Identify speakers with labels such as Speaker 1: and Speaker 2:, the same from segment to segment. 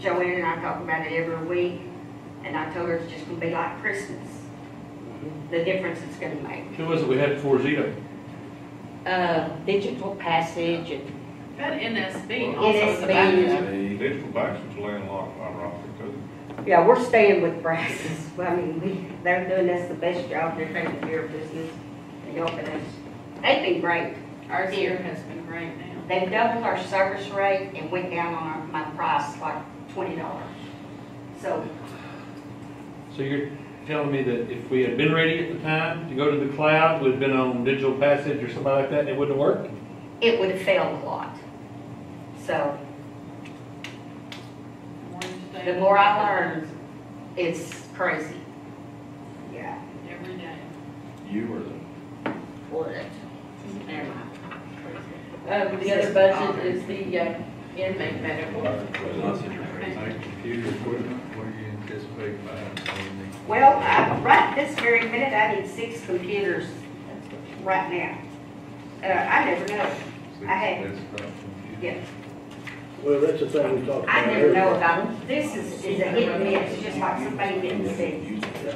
Speaker 1: Joanne and I talk about it every week, and I told her it's just gonna be like Christmas, the difference it's gonna make.
Speaker 2: Who was it we had before Zito?
Speaker 1: Uh, digital passage and
Speaker 3: That NSB
Speaker 1: Well,
Speaker 3: also is a
Speaker 1: NSB.
Speaker 3: backup.
Speaker 4: Hey,
Speaker 5: Digital Baxter's landlocked, ironically, because
Speaker 1: Yeah, we're staying with Brazos. I mean, we, they're doing us the best job. They're taking care of business and helping us. They've been great.
Speaker 3: Our year has been great now.
Speaker 1: They've doubled our service rate and went down on our, my price like twenty dollars. So,
Speaker 2: So you're telling me that if we had been ready at the time to go to the cloud, we'd been on digital passage or something like that, and it wouldn't have worked?
Speaker 1: it would have failed a lot. So, The more I learn. it's crazy. Yeah.
Speaker 3: Every day.
Speaker 4: you were
Speaker 1: Would. Never mind.
Speaker 6: Um, the other budget is the uh, inmate medical.
Speaker 5: Like computer equipment, what do you anticipate buying on the?
Speaker 1: Well, I, right this very minute, I need six computers right now. Uh, I never know. I had-
Speaker 5: Desktop computer.
Speaker 1: Yeah.
Speaker 7: Well, that's the thing we talked about.
Speaker 1: I never know about them. This is, is a hit and miss, just like somebody didn't see.
Speaker 7: It-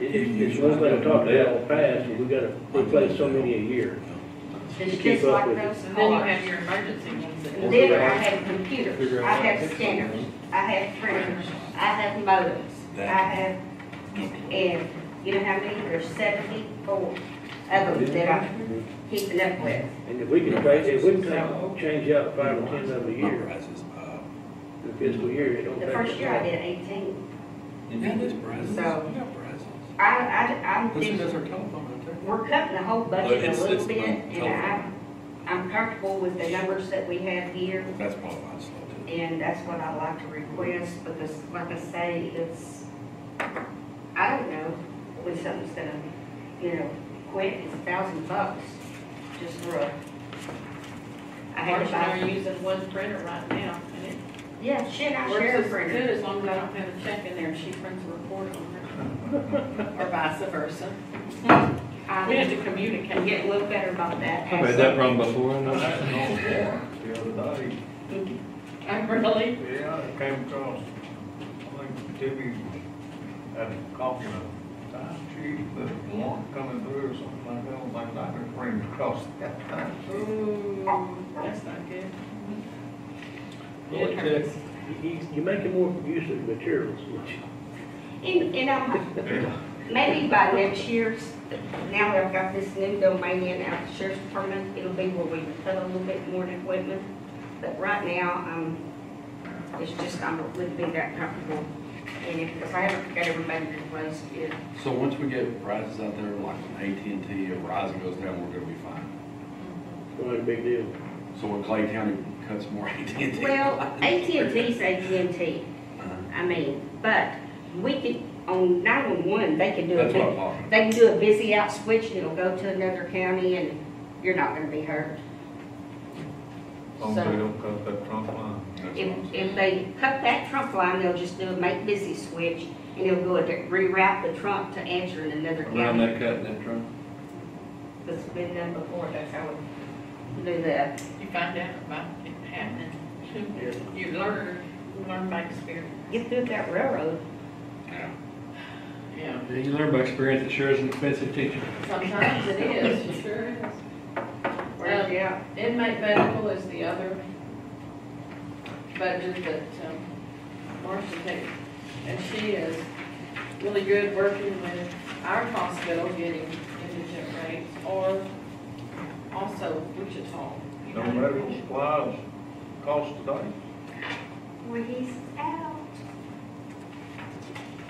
Speaker 7: It's one thing we talked about in the past, is we gotta replace so many a year.
Speaker 1: It's
Speaker 7: keep
Speaker 1: just
Speaker 7: up
Speaker 1: like
Speaker 7: with
Speaker 1: those
Speaker 3: And then you
Speaker 1: cars.
Speaker 3: have your emergency ones that.
Speaker 1: And Then I have computers, I have scanners, I have printers, I have modems, I have, and you know how many, there's seventy-four of them that I'm keeping up with.
Speaker 7: And if we can, tra- if we can ta- change out five or ten of a year, the fiscal year, it don't.
Speaker 1: The
Speaker 7: take
Speaker 1: first
Speaker 7: that
Speaker 1: year I
Speaker 7: long.
Speaker 1: did eighteen.
Speaker 6: So-
Speaker 1: I, I, I'm
Speaker 6: Listen,
Speaker 1: just,
Speaker 6: that's our telephone right
Speaker 1: we're cutting the whole
Speaker 6: Look,
Speaker 1: budget
Speaker 6: it's-
Speaker 1: a little
Speaker 6: it's
Speaker 1: bit,
Speaker 6: not
Speaker 1: and I, I'm comfortable with the numbers that we have here.
Speaker 6: That's qualified slow.
Speaker 1: And that's what I'd like to request, because like I say, it's, I don't know when something's gonna, you know, quit, it's a thousand bucks, just for a. I had to
Speaker 3: Marcia and I are
Speaker 1: buy,
Speaker 3: using one printer right now, and it
Speaker 1: yeah, shit, I
Speaker 3: works
Speaker 1: share a
Speaker 3: as
Speaker 1: printer.
Speaker 3: good as long as I don't have a check in there, and she prints a report on her. Or vice versa. We have
Speaker 1: I
Speaker 3: to
Speaker 1: can
Speaker 3: communicate.
Speaker 1: get a little better about that.
Speaker 2: I made that wrong before, I
Speaker 5: I
Speaker 2: know.
Speaker 5: had an old warrant the other day,
Speaker 3: I really,
Speaker 5: yeah, it came across, I think Timmy had a copy of a time sheet, the warrant coming through or something like that, I was like, I could bring it across that time.
Speaker 3: ooh, that's not good. It hurts.
Speaker 7: uh, You- You're making more use of materials, which
Speaker 1: And, and I'm, maybe by next year's, now that I've got this new domain in out the sheriff's department, it'll be where we can put a little bit more in equipment. But right now, um, it's just, I'm, wouldn't be that comfortable. And if, if I haven't got everybody to place it,
Speaker 8: So once we get prices out there, like when AT&T or Verizon goes down, we're gonna be fine.
Speaker 7: is not a big deal.
Speaker 8: So when Clay County cuts more AT&T.
Speaker 1: well, AT&T's AT&T,
Speaker 8: Uh-huh.
Speaker 1: I mean, but we could, on nine-one-one, they can do
Speaker 8: That's
Speaker 1: it.
Speaker 8: what I'm talking about.
Speaker 1: They can do a busy out switch, and it'll go to another county, and you're not gonna be hurt.
Speaker 5: Long as they don't cut that trunk line.
Speaker 8: That's what I'm
Speaker 1: If,
Speaker 8: saying.
Speaker 1: if they cut that trunk line, they'll just do a make busy switch, and it'll go and reroute the trunk to answer in another
Speaker 2: Around
Speaker 1: county.
Speaker 2: that cut, that trunk.
Speaker 1: That's been done before, that's how we do that.
Speaker 3: You find out about it happening. You learn, learn by experience.
Speaker 1: Get through that railroad.
Speaker 8: Yeah.
Speaker 3: Yeah.
Speaker 2: Yeah, You learn by experience, it sure is an expensive teacher.
Speaker 6: Sometimes it is, it sure is.
Speaker 1: Where's it out?
Speaker 6: Inmate medical is the other budget that um, Marcia takes. And she is really good working with our hospital getting indigent rates or also Wichita.
Speaker 5: No medical supplies cost today.
Speaker 1: Well, he's out.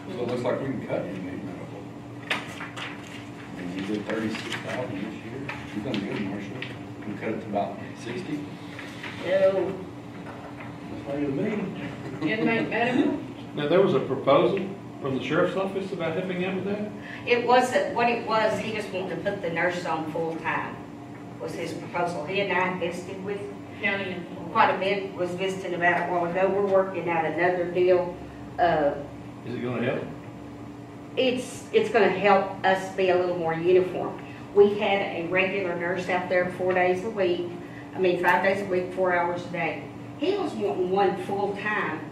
Speaker 8: So it looks like we can cut in the medical. And you did thirty-six thousand this year. You've done good, Marshall. We can cut it to about sixty.
Speaker 1: No,
Speaker 8: That's why you mean.
Speaker 3: Inmate medical,
Speaker 2: Now, there was a proposal from the sheriff's office about helping out with that?
Speaker 1: it wasn't, what it was, he just wanted to put the nurse on full-time, was his proposal. He and I invested with
Speaker 3: county employee.
Speaker 1: quite a bit, was visiting about a while ago. We're working out another deal, uh,
Speaker 2: Is it gonna help?
Speaker 1: It's, it's gonna help us be a little more uniform. We had a regular nurse out there four days a week, I mean, five days a week, four hours a day. He was wanting one full-time,